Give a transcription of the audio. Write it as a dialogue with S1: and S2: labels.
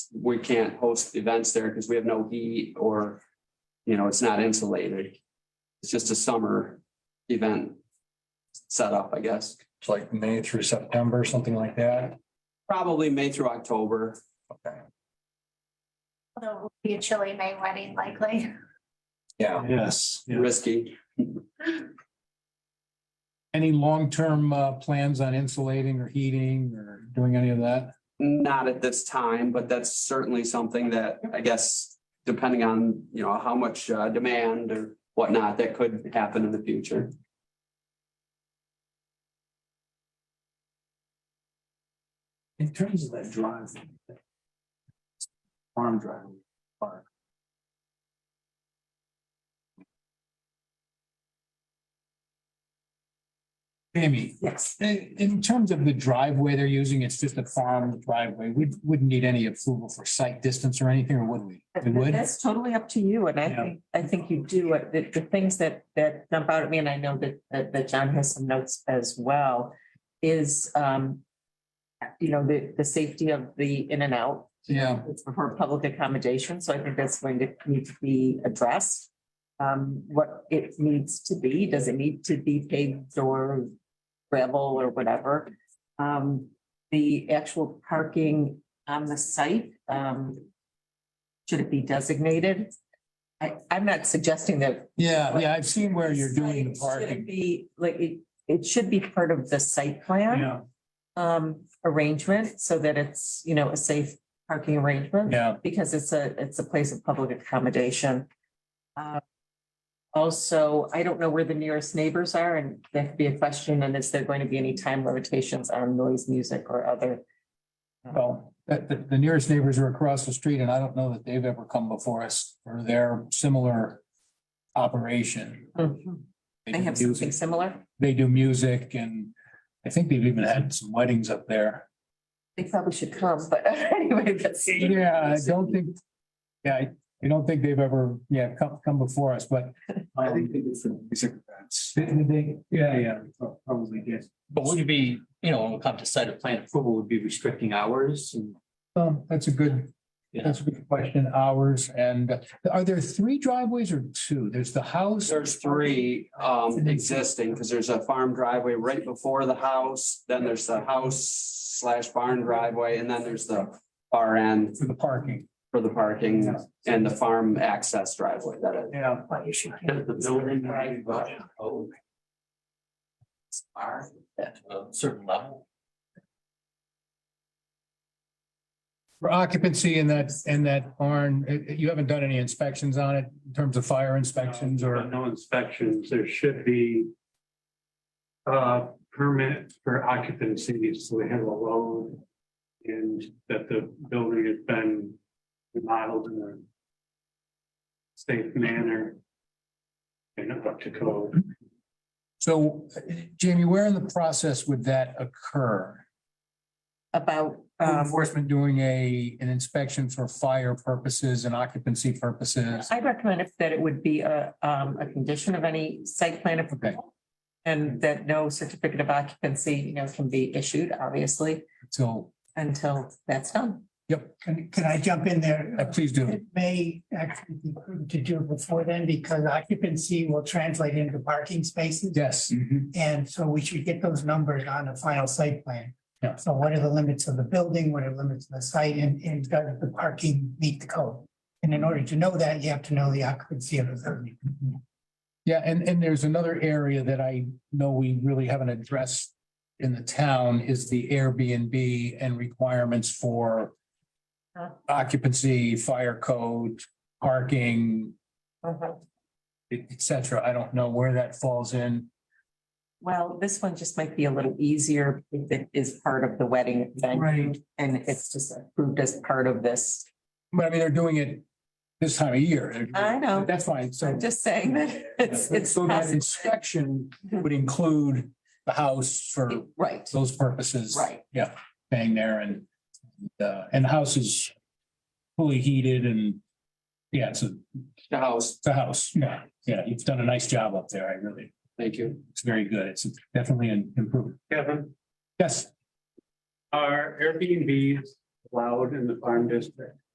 S1: we can't host events there because we have no heat or, you know, it's not insulated. It's just a summer event setup, I guess.
S2: It's like May through September, something like that.
S1: Probably May through October.
S2: Okay.
S3: Although it would be a chilly May wedding likely.
S2: Yeah,
S4: Yes. yeah.
S1: Risky.
S4: Any long-term uh, plans on insulating or heating or doing any of that?
S1: Not at this time, but that's certainly something that I guess depending on, you know, how much uh, demand or whatnot, that could happen in the future.
S4: In terms of that drive. Farm drive. park. Amy. Yes. In, in terms of the driveway they're using, it's just a farm driveway. We wouldn't need any approval for site distance or anything, or would we? We would?
S5: That's totally up to you, and I
S4: Yeah.
S5: think, I think you do, it. the, the things that, that jump out at me, and I know that, that, that John has some notes as well, is, um, you know, the, the safety of the in and out,
S4: Yeah.
S5: it's for public accommodation, so I think that's going to need to be addressed. Um, what it needs to be, does it need to be paved or gravel or whatever? Um, the actual parking on the site, um, should it be designated? I, I'm not suggesting that.
S4: Yeah, yeah, I've seen where you're doing the
S5: Should it
S4: parking.
S5: Be, like, it, it should be part of the site plan. Um, arrangement, so that it's, you know, a safe parking arrangement
S4: Yeah,
S5: because it's a, it's a place of public accommodation. Uh, Also, I don't know where the nearest neighbors are, and that could be a question, and is there going to be any time limitations on noise, music, or other?
S4: well, the, the- the nearest neighbors are across the street and I don't know that they've ever come before us for their similar operation.
S5: They
S4: do
S5: have
S4: Mm-hmm. music-
S5: something similar?
S4: They do music and I think they've even had some weddings up there.
S5: They probably should come, but anyway, that's.
S4: Yeah, I don't think, yeah, I, I don't think they've ever, yeah, come, come before us, but. I think they do some music events. yeah, yeah, probably, yes.
S6: But would it be, you know, when we come to site of plan approval, would be restricting hours and
S4: Um, that's a good,
S6: Yeah.
S4: that's a good question, hours, and uh, are there three driveways or two? There's the house,
S1: There's three um existing, because there's a farm driveway right before the house, then there's the house slash barn driveway, and then there's the RN
S4: for the parking.
S1: for the parking and the farm access driveway that is.
S4: Yeah.
S6: the building right by oh. Are at a certain level.
S4: For occupancy in that, in that barn, uh, uh, you haven't done any inspections on it in terms of fire inspections
S7: Uh,
S4: or,
S7: No inspections, there should be. Uh, permit for occupancy, so they have a loan. And that the building has been remodeled in a. Safe manner. And up to code,
S4: so uh, Jamie, where in the process would that occur?
S5: About, um,
S4: Enforcement doing a, an inspection for fire purposes and occupancy purposes?
S5: I recommend if- that it would be a, um, a condition of any site plan approval. And that no certificate of occupancy, you know, can be issued, obviously,
S4: So,
S5: until that's done.
S4: yep,
S8: Can, can I jump in there?
S4: uh, please do.
S8: It may actually be prudent to do it before then because occupancy will translate into parking spaces.
S4: Yes,
S8: And so we should get those numbers on a final site plan.
S4: Yeah.
S8: So what are the limits of the building? What are the limits of the site and, and does the parking meet the code? And in order to know that, you have to know the occupancy of the building.
S4: yeah, and, and there's another area that I know we really haven't addressed in the town is the Airbnb and requirements for
S5: Huh.
S4: occupancy, fire code, parking, et et cetera. I don't know where that falls in.
S5: Well, this one just might be a little easier if it is part of the wedding venue.
S4: Right.
S5: And it's just approved as part of this.
S4: But I mean, they're doing it this time of year.
S5: I know.
S4: That's fine, so.
S5: I'm just saying that it's, it's.
S4: So that
S5: possible.
S4: inspection would include the house for
S5: Right,
S4: those purposes.
S5: Right.
S4: Yeah, staying there and, uh, and the house is fully heated and, yeah, it's a,
S1: The house,
S4: it's a house. Yeah, yeah, you've done a nice job up there. I really,
S1: thank you.
S4: it's very good. It's definitely an improvement.
S7: Kevin,
S4: Yes,
S7: are Airbnbs allowed in the farm district.